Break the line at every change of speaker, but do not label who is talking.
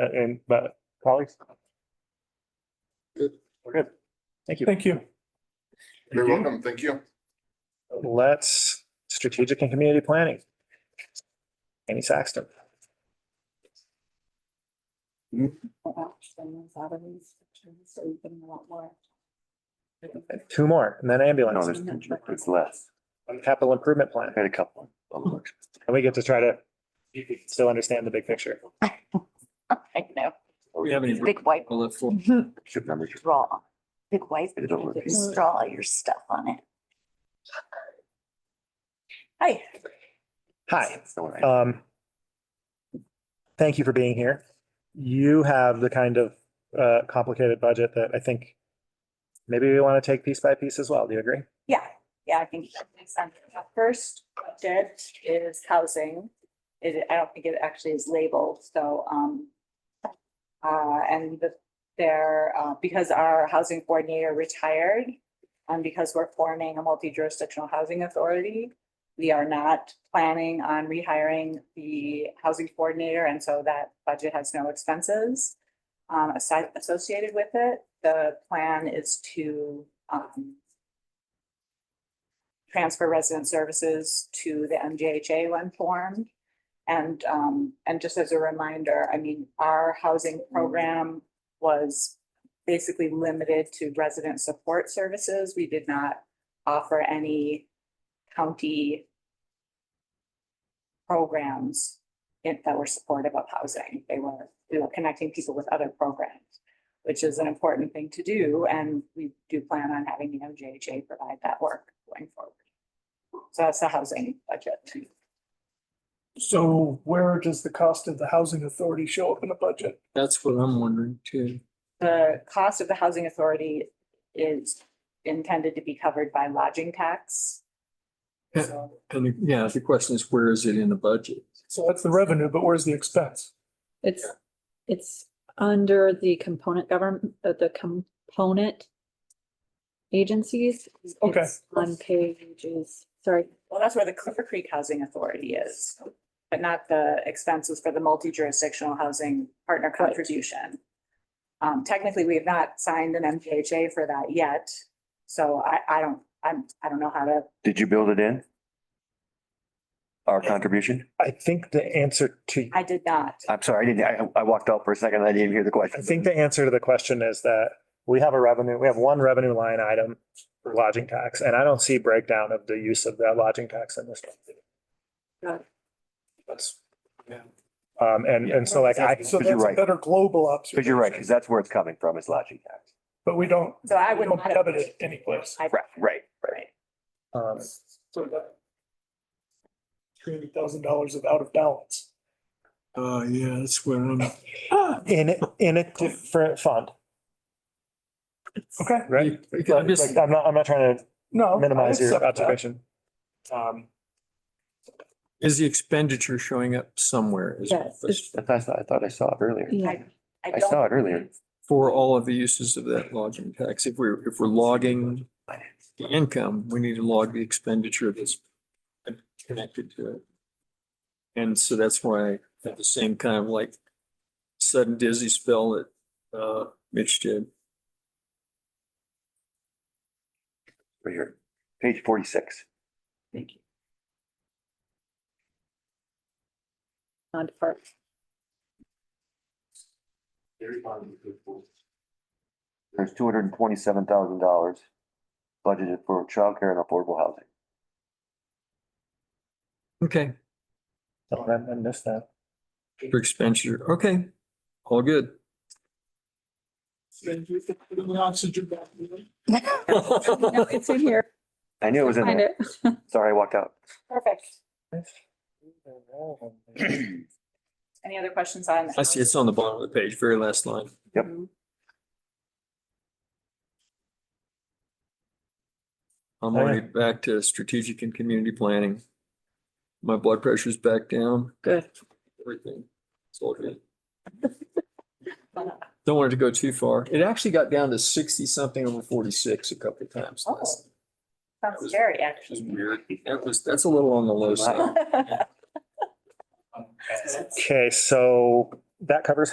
Uh, And, but colleagues?
Good.
We're good. Thank you.
Thank you.
You're
Thank you.
welcome. Thank you.
Let's strategic and community planning. Annie Saxton. Two more and then
No,
ambulance.
there's, it's less.
Capital improvement plan.
I had a couple. of them.
And we get to try to still understand the big picture.
I know,
We have any
big white
bullet for
Should remember.
draw, big white,
It don't look-
just draw your stuff on it. Hi.
Hi,
So when I-
um. Thank you for being here. You have the kind of uh complicated budget that I think maybe we want to take piece by piece as well. Do you agree?
Yeah, yeah, I think that makes sense. The First budget is housing. It, I don't think it actually is labeled, so, um, uh, and the, there, uh, because our housing coordinator retired and because we're forming a multi-jurisdictional housing authority, we are not planning on rehiring the housing coordinator, and so that budget has no expenses um, aside, associated with it. The plan is to, um, transfer resident services to the MJHA when formed. And, um, and just as a reminder, I mean, our housing program was basically limited to resident support services. We did not offer any county programs in- that were supportive of housing. They were, you know, connecting people with other programs, which is an important thing to do, and we do plan on having the MJHA provide that work going forward. So that's the housing budget.
So where does the cost of the housing authority show up in the budget?
That's what I'm wondering too.
The cost of the housing authority is intended to be covered by lodging tax.
Yeah.
So
And the- yeah, the question is, where is it in the budget?
So that's the revenue, but where's the expense?
It's, it's under the component government, the component agencies.
Okay.
It's On pages, sorry,
Well, that's where the Clear Creek Housing Authority is, but not the expenses for the multi-jurisdictional housing partner contribution. Um, technically, we have not signed an MPHA for that yet, so I, I don't, I'm, I don't know how to,
Did you build it in? Our contribution?
I think the answer to,
I did not.
I'm sorry, I didn't, I, I walked out for a second. I didn't hear the question.
I think the answer to the question is that we have a revenue, we have one revenue line item for lodging tax, and I don't see breakdown of the use of that lodging tax in this.
Got it.
That's. Um, and, and so like I,
Because
So
you're
that's a
right.
better global
Because
observation.
you're right, because that's where it's coming from is lodging tax.
But we don't,
So I
we
would
don't
not.
have it anyplace.
I-
Right, right, right.
Right.
um,
So that three hundred thousand dollars of out of balance.
Uh, yeah, that's where I'm.
um, in, in a different fund,
Okay,
right?
I'm just,
Like, I'm not, I'm not trying to
no. I
minimize your
accept that.
observation. Um,
is the expenditure showing up somewhere? is my
Yes,
question.
That's, I thought, I thought I saw it earlier.
yeah,
I
don't-
saw it earlier.
For all of the uses of that lodging tax, if we're, if we're logging the income, we need to log the expenditure that's connected to it. And so that's why I had the same kind of like sudden dizzy spell that, uh, Mitch did.
Right here, page forty-six.
on part,
There's two hundred and twenty-seven thousand dollars budgeted for childcare and affordable housing.
Okay,
oh, I I missed that.
for expenditure, okay, all good.
no, it's in here,
I knew it was in
find
there.
it.
Sorry, I walked out.
Perfect. Any other questions on?
I see it's on the bottom of the page, very last line.
Yep.
I'm
All right.
already back to strategic and community planning. My blood pressure's back down,
Good.
everything. It's all good. Don't want it to go too far. It actually got down to sixty something over forty-six a couple of times.
Oh.
last-
Sounds scary, actually.
Which is weird. That was, that's a little on the low side.
Okay, so that covers